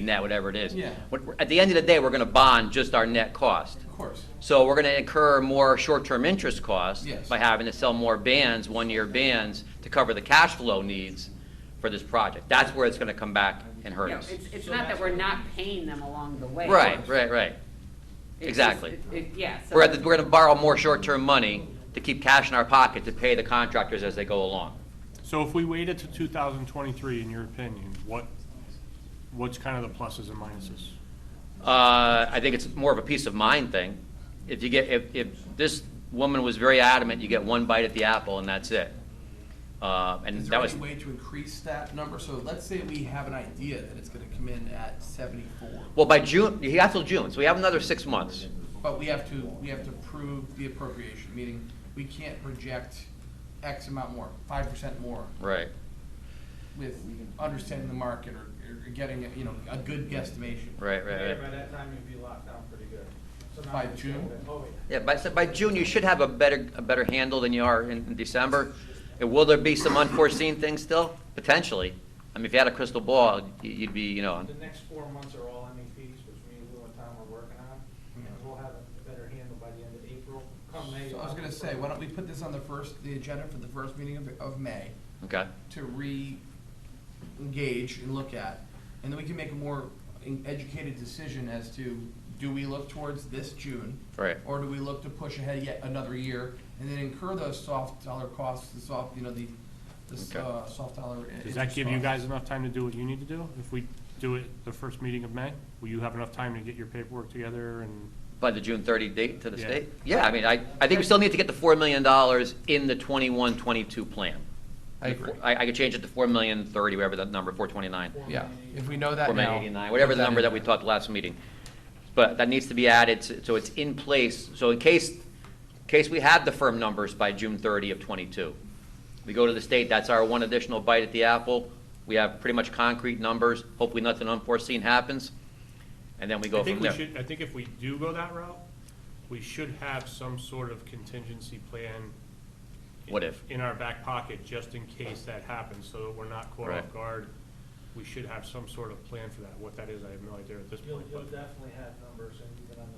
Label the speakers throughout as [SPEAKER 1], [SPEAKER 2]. [SPEAKER 1] net, whatever it is.
[SPEAKER 2] Yeah.
[SPEAKER 1] What- At the end of the day, we're gonna bond just our net cost.
[SPEAKER 2] Of course.
[SPEAKER 1] So we're gonna incur more short-term interest costs.
[SPEAKER 2] Yes.
[SPEAKER 1] By having to sell more bands, one-year bands, to cover the cash flow needs for this project. That's where it's gonna come back and hurt
[SPEAKER 3] Yeah,
[SPEAKER 1] us.
[SPEAKER 3] it's, it's
[SPEAKER 2] So
[SPEAKER 3] not that
[SPEAKER 2] that's-
[SPEAKER 3] we're not paying them along the way.
[SPEAKER 1] Right, right, right.
[SPEAKER 3] It's just-
[SPEAKER 1] Exactly.
[SPEAKER 3] it- it- Yeah, so.
[SPEAKER 1] We're at, the- we're gonna borrow more short-term money to keep cash in our pocket to pay the contractors as they go along.
[SPEAKER 4] So if we waited to 2023, in your opinion, what, what's kind of the pluses and minuses?
[SPEAKER 1] Uh, I think it's more of a peace of mind thing. If you get, if, if this woman was very adamant, you get one bite at the apple and that's it. Uh, and
[SPEAKER 2] Is there
[SPEAKER 1] that was,
[SPEAKER 2] any way to increase that number? So let's say we have an idea that it's gonna come in at seventy-four,
[SPEAKER 1] well, by June, he got till June, so we have another six months.
[SPEAKER 2] but we have to, we have to prove the appropriation, meaning we can't project X amount more, five percent more,
[SPEAKER 1] Right.
[SPEAKER 2] with understanding the market or, or getting, you know, a good guesstimation.
[SPEAKER 1] Right,
[SPEAKER 5] Yeah,
[SPEAKER 1] right,
[SPEAKER 5] by
[SPEAKER 1] right.
[SPEAKER 5] that time you'd be locked down pretty good. So now
[SPEAKER 2] By
[SPEAKER 5] you're
[SPEAKER 2] June?
[SPEAKER 5] still- Oh, yeah.
[SPEAKER 1] Yeah, by, so by June, you should have a better, a better handle than you are in, in December. And will there be some unforeseen things still? Potentially. I mean, if you had a crystal ball, you- you'd be, you know,
[SPEAKER 5] The next four months are all MEPs, which me, Lou, and Tom are working on, and we'll have a better handle by the end of April. Come May.
[SPEAKER 2] Hmm. So I was gonna say, why don't we put this on the first, the agenda for the first meeting of, of May
[SPEAKER 1] okay.
[SPEAKER 2] to re-engage and look at? And then we can make a more en- educated decision as to, do we look towards this June?
[SPEAKER 1] Right.
[SPEAKER 2] Or do we look to push ahead yet another year and then incur those soft dollar costs, the soft, you know, the, the, uh, soft dollar. i-
[SPEAKER 4] Does that
[SPEAKER 2] interest
[SPEAKER 4] give you
[SPEAKER 2] costs?
[SPEAKER 4] guys enough time to do what you need to do? If we do it the first meeting of May, will you have enough time to get your paperwork together and?
[SPEAKER 1] By the June 30 date to the
[SPEAKER 4] Yeah.
[SPEAKER 1] state? Yeah, I mean, I, I think we still need to get the $4 million in the 21, 22 plan.
[SPEAKER 2] I agree.
[SPEAKER 1] I, I could change it to 4 million 30, whatever that number, 429,
[SPEAKER 2] Yeah, if we know that
[SPEAKER 1] 4 million
[SPEAKER 2] now.
[SPEAKER 1] 89, whatever the number that we talked last meeting. But that needs to be added, so- so it's in place, so in case, in case we have the firm numbers by June 30 of 22. We go to the state, that's our one additional bite at the apple. We have pretty much concrete numbers, hopefully nothing unforeseen happens, and then we go
[SPEAKER 4] I
[SPEAKER 1] from
[SPEAKER 4] think we
[SPEAKER 1] there.
[SPEAKER 4] should, I think if we do go that route, we should have some sort of contingency plan.
[SPEAKER 1] What if?
[SPEAKER 4] In our back pocket, just in case that happens, so that we're not caught
[SPEAKER 1] Right.
[SPEAKER 4] off guard. We should have some sort of plan for that. What that is, I have no idea at this
[SPEAKER 5] You'll,
[SPEAKER 4] point,
[SPEAKER 5] you'll
[SPEAKER 4] but
[SPEAKER 5] definitely have numbers, and even on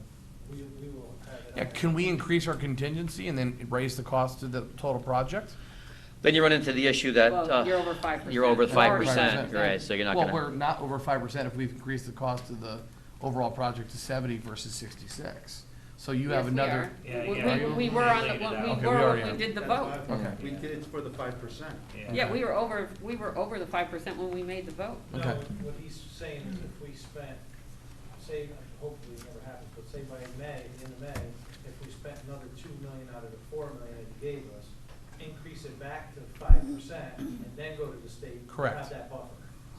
[SPEAKER 5] the, we, we will have it.
[SPEAKER 2] Yeah,
[SPEAKER 5] on
[SPEAKER 2] can
[SPEAKER 5] the-
[SPEAKER 2] we increase our contingency and then raise the cost to the total project?
[SPEAKER 1] Then you run into the issue that.
[SPEAKER 3] Well,
[SPEAKER 1] uh,
[SPEAKER 3] you're over 5%.
[SPEAKER 1] You're over
[SPEAKER 3] It's
[SPEAKER 1] five
[SPEAKER 3] already
[SPEAKER 1] percent,
[SPEAKER 2] 5%,
[SPEAKER 1] right, so you're not
[SPEAKER 2] Well, we're
[SPEAKER 1] gonna,
[SPEAKER 2] not over five percent if we've increased the cost of the overall project to seventy versus sixty-six. So you have
[SPEAKER 3] Yes, we
[SPEAKER 2] another.
[SPEAKER 3] are.
[SPEAKER 6] Yeah,
[SPEAKER 3] We-
[SPEAKER 6] yeah,
[SPEAKER 3] we-
[SPEAKER 6] you
[SPEAKER 3] We were on the,
[SPEAKER 6] laid it out.
[SPEAKER 3] when
[SPEAKER 2] Okay,
[SPEAKER 3] we
[SPEAKER 2] we
[SPEAKER 3] were,
[SPEAKER 2] already
[SPEAKER 3] when
[SPEAKER 2] are.
[SPEAKER 3] we did the
[SPEAKER 5] That's
[SPEAKER 3] vote.
[SPEAKER 5] why
[SPEAKER 2] Okay.
[SPEAKER 5] We did it for the five percent.
[SPEAKER 3] Yeah, we were over, we were over the five percent when we made the vote.
[SPEAKER 5] No,
[SPEAKER 2] Okay.
[SPEAKER 5] what he's saying is if we spent, say, hopefully it never happens, but say by May, in May, if we spent another two million out of the four million that you gave us, increase it back to five percent and then go to the state. and
[SPEAKER 2] Correct.
[SPEAKER 5] Have that buffer.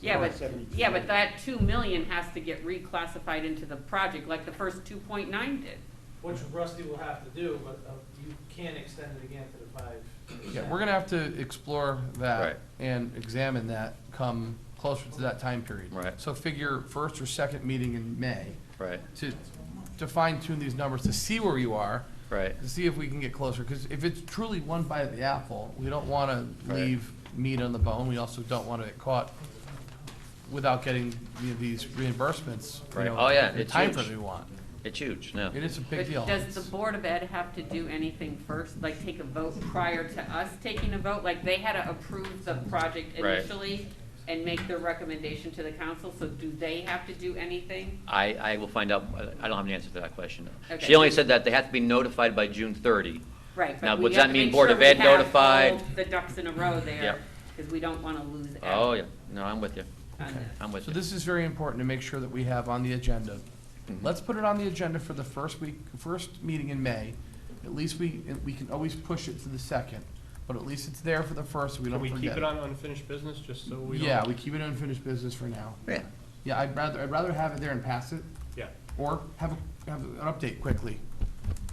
[SPEAKER 3] Yeah, but,
[SPEAKER 5] Seventy-two.
[SPEAKER 3] yeah, but that two million has to get reclassified into the project, like the first two point nine did.
[SPEAKER 5] Which Rusty will have to do, but uh, you can extend it again to the five percent.
[SPEAKER 2] Yeah, we're gonna have to explore
[SPEAKER 1] Right.
[SPEAKER 2] that and examine that come closer to that time period.
[SPEAKER 1] Right.
[SPEAKER 2] So figure first or second meeting in May
[SPEAKER 1] right,
[SPEAKER 2] to, to fine tune these numbers, to see where you are,
[SPEAKER 1] right,
[SPEAKER 2] to see if we can get closer, because if it's truly one bite of the apple, we don't wanna
[SPEAKER 1] Right.
[SPEAKER 2] leave meat on the bone, we also don't wanna get caught without getting, you know, these reimbursements, you
[SPEAKER 1] Right.
[SPEAKER 2] know,
[SPEAKER 1] Oh, yeah,
[SPEAKER 2] the
[SPEAKER 1] it's
[SPEAKER 2] time
[SPEAKER 1] huge.
[SPEAKER 2] frame we want.
[SPEAKER 1] it's huge, no.
[SPEAKER 2] It is a big
[SPEAKER 3] But
[SPEAKER 2] deal.
[SPEAKER 3] does the Board of Ed have to do anything first, like take a vote prior to us taking a vote? Like, they had to approve the project
[SPEAKER 1] Right.
[SPEAKER 3] initially and make their recommendation to the council, so do they have to do anything?
[SPEAKER 1] I, I will find out, I don't have an answer to that question. She
[SPEAKER 3] Okay.
[SPEAKER 1] only said that they have to be notified by June thirty.
[SPEAKER 3] Right,
[SPEAKER 1] Now,
[SPEAKER 3] but we
[SPEAKER 1] what's
[SPEAKER 3] have
[SPEAKER 1] that
[SPEAKER 3] to
[SPEAKER 1] mean,
[SPEAKER 3] make
[SPEAKER 1] Board
[SPEAKER 3] sure
[SPEAKER 1] of
[SPEAKER 3] we
[SPEAKER 1] Ed
[SPEAKER 3] have
[SPEAKER 1] notified?
[SPEAKER 3] all the ducks in a row
[SPEAKER 1] Yep.
[SPEAKER 3] there, because we don't want to lose Ed
[SPEAKER 1] Oh,
[SPEAKER 3] on
[SPEAKER 1] yeah, no, I'm with you,
[SPEAKER 3] this.
[SPEAKER 1] I'm with
[SPEAKER 2] So
[SPEAKER 1] you.
[SPEAKER 2] this is very important to make sure that we have on the agenda.
[SPEAKER 1] Mm-hmm.
[SPEAKER 2] Let's put it on the agenda for the first week, first meeting in May. At least we, we can always push it to the second, but at least it's there for the first, so we
[SPEAKER 4] can
[SPEAKER 2] don't
[SPEAKER 4] we
[SPEAKER 2] forget.
[SPEAKER 4] keep it on unfinished business, just so we don't?
[SPEAKER 2] Yeah, we keep it unfinished business for now.
[SPEAKER 1] Yeah,
[SPEAKER 2] Yeah, I'd rather, I'd rather have it there and pass it,
[SPEAKER 4] Yeah.
[SPEAKER 2] or have, a- have an update quickly.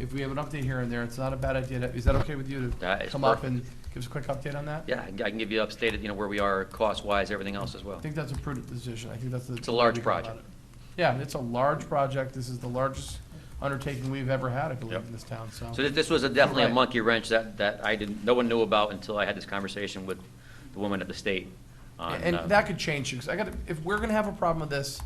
[SPEAKER 2] If we have an update here and there, it's not a bad idea. to- Is that okay with you
[SPEAKER 1] That
[SPEAKER 2] to
[SPEAKER 1] is
[SPEAKER 2] come up
[SPEAKER 1] perfect.
[SPEAKER 2] and give us a quick update on that?
[SPEAKER 1] yeah, I can- I can give you updated, you know, where we are cost-wise, everything else as
[SPEAKER 2] I
[SPEAKER 1] well.
[SPEAKER 2] think that's a prudent decision. I think that's the.
[SPEAKER 1] It's a large
[SPEAKER 2] way to go about
[SPEAKER 1] project.
[SPEAKER 2] it. Yeah, it's a large project. This is the largest undertaking we've ever had, I believe,
[SPEAKER 1] Yep.
[SPEAKER 2] in this town, so.
[SPEAKER 1] So this, this was a definitely a
[SPEAKER 2] Right.
[SPEAKER 1] monkey wrench that, that I didn't, no one knew about until I had this conversation with the woman at the state. on,
[SPEAKER 2] And
[SPEAKER 1] uh,
[SPEAKER 2] that could change, because I gotta, if we're gonna have a problem with this,